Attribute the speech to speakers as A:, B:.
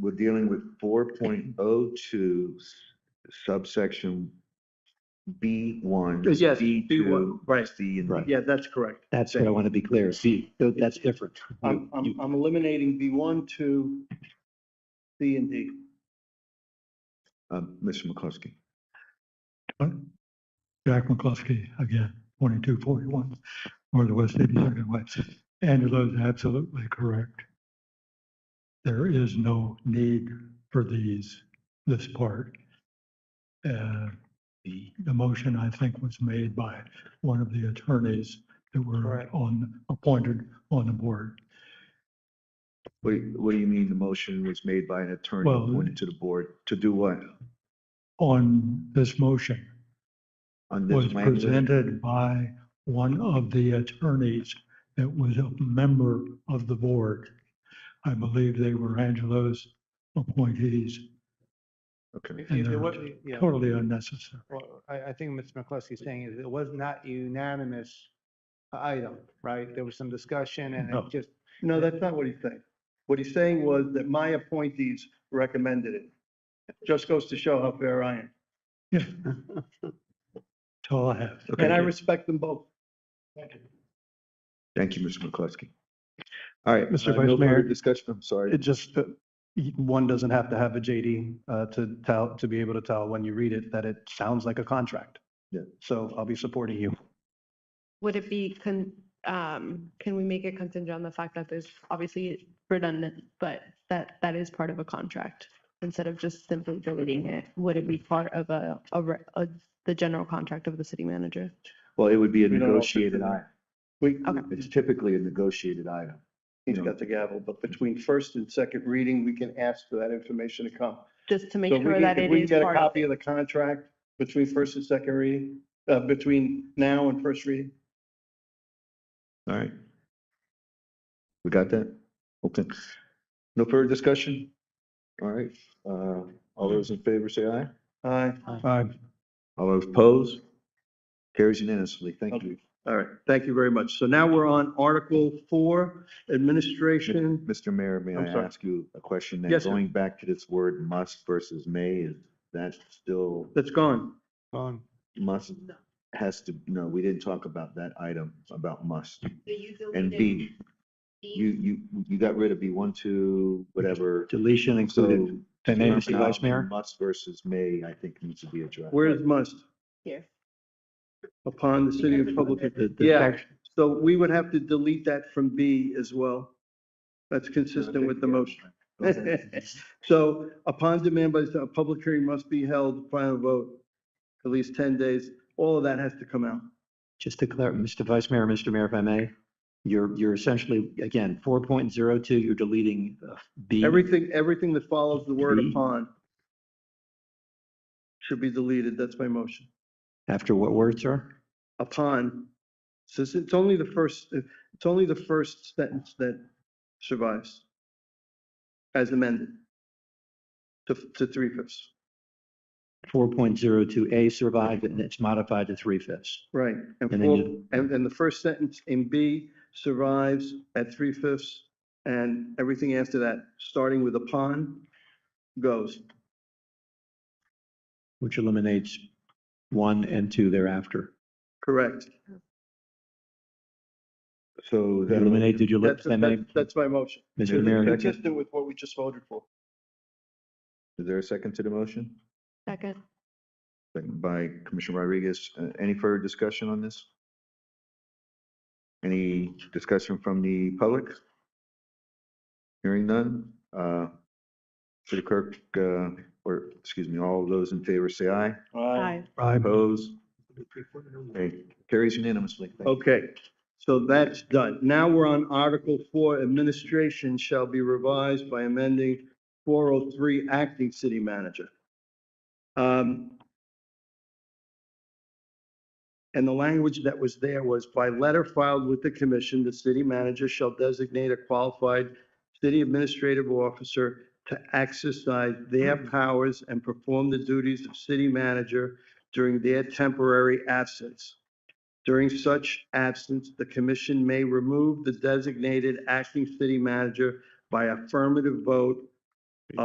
A: we're dealing with four point oh two subsection B one.
B: Yes,
A: B
B: B1,
A: two.
B: right.
A: C and
C: Right.
B: Yeah, that's correct.
C: That's what I want to be clear. See, tho- that's different.
B: I'm, I'm, I'm eliminating B one, two, C and D.
A: Uh, Mr. McCluskey.
D: Jack McCluskey, again, twenty-two forty-one, or the West Eighty-second Way. Angela's absolutely correct. There is no need for these, this part. Uh, The, the motion, I think, was made by one of the attorneys that were
B: Correct.
D: on, appointed on the board.
A: What, do you- what do you mean the motion was made by an attorney
D: Well-
A: appointed to the board to do what?
D: On this motion
A: On
D: was
A: this language?
D: presented by one of the attorneys that was a member of the board. I believe they were Angelo's appointees,
A: Okay.
D: And
E: It
D: they're
E: was, yeah,
D: totally unnecessary.
E: well, I, I think Mr. McCluskey is saying is it was not unanimous item, right? There was some discussion and
D: No.
E: it just,
B: No, that's not what he's saying. What he's saying was that my appointees recommended it. Just goes to show how fair I am.
D: Yeah. That's all I have.
A: Okay.
B: And I respect them both.
A: Thank you, Mr. McCluskey. All right.
F: Mr.
A: uh,
F: Vice
A: no further
F: Mayor.
A: Discussion, I'm sorry.
F: It just, uh, y- one doesn't have to have a JD uh, to tell, to be able to tell when you read it that it sounds like a contract.
A: Yeah.
F: So I'll be supporting you.
G: Would it be, con- um, can we make it contingent on the fact that there's obviously redundant, but that, that is part of a contract? Instead of just simply deleting it, would it be part of a, a re- a- the general contract of the city manager?
A: Well, it would be a
B: We don't know if it's
A: negotiated
B: in-
A: item.
B: We,
A: It's typically a negotiated item.
B: he's got the gavel, but between first and second reading, we can ask for that information to come.
G: Just to
B: So
G: make
B: we
G: sure
B: can-
G: that
B: if
G: it
B: we can
G: is
B: get a
G: part of
B: Copy of the contract between first and second reading, uh, between now and first reading.
A: All right. We got that? Okay. No further discussion? All right, uh, all those in favor say aye.
B: Aye.
F: Uh,
A: All those opposed? Carries unanimously. Thank you,
B: All right, thank you very much. So now we're on Article Four, Administration.
A: Mr. Mayor. May
B: I'm
A: I
B: sorry.
A: ask you a question? then?
B: Yes, sir.
A: Going back to this word must versus may, is that still
B: That's gone.
E: um,
A: must has to, no, we didn't talk about that item about must. And
G: it.
A: B, you, you, you got rid of B one, two, whatever.
C: Deletion included.
A: So
F: And then, Mr. Vice
A: terminology
F: Mayor?
A: Must versus may, I think needs to be addressed.
B: Where is must?
G: Here.
B: Upon the city of public.
C: The- the
B: Yeah,
C: section-
B: so we would have to delete that from B as well. That's consistent with the motion. So upon demand by, a public hearing must be held, final vote, at least 10 days. All of that has to come out.
C: Just to clarify, Mr. Vice Mayor, Mr. Mayor, if I may, you're, you're essentially, again, 4.02, you're deleting uh, B.
B: Everything, everything that follows the word
C: Mhm.
B: upon should be deleted. That's my motion.
C: After what word, sir?
B: Upon, so it's- it's only the first, it's only the first sentence that survives as amended to, to three fifths.
C: 4.02A survived and it's modified to three fifths.
B: Right. And
C: And then
B: four,
C: you-
B: and, and the first sentence in B survives at three fifths and everything after that, starting with upon, goes.
C: which eliminates one and two thereafter.
B: Correct.
A: So
C: You
A: that
C: Eliminate, did you let,
B: That's,
C: if I may,
B: that's, that's my motion.
C: Mr.
A: that's-
C: Mayor?
A: that's-
B: Consistent with what we just voted for.
A: Is there a second to the motion?
G: Second.
A: Second by Commissioner Rodriguez. Uh, Any further discussion on this? Any discussion from the public? Hearing none. Uh, City clerk, uh, or, excuse me, all those in favor say aye.
G: Aye.
A: Opposed? Okay, Carries unanimously. Thank you.
B: Okay, so that's done. Now we're on Article Four, Administration shall be revised by amending four oh three Acting City Manager. Um, And the language that was there was by letter filed with the commission, the city manager shall designate a qualified city administrative officer to exercise their
A: Hmm.
B: powers and perform the duties of city manager during their temporary absence. During such absence, the commission may remove the designated acting city manager by affirmative vote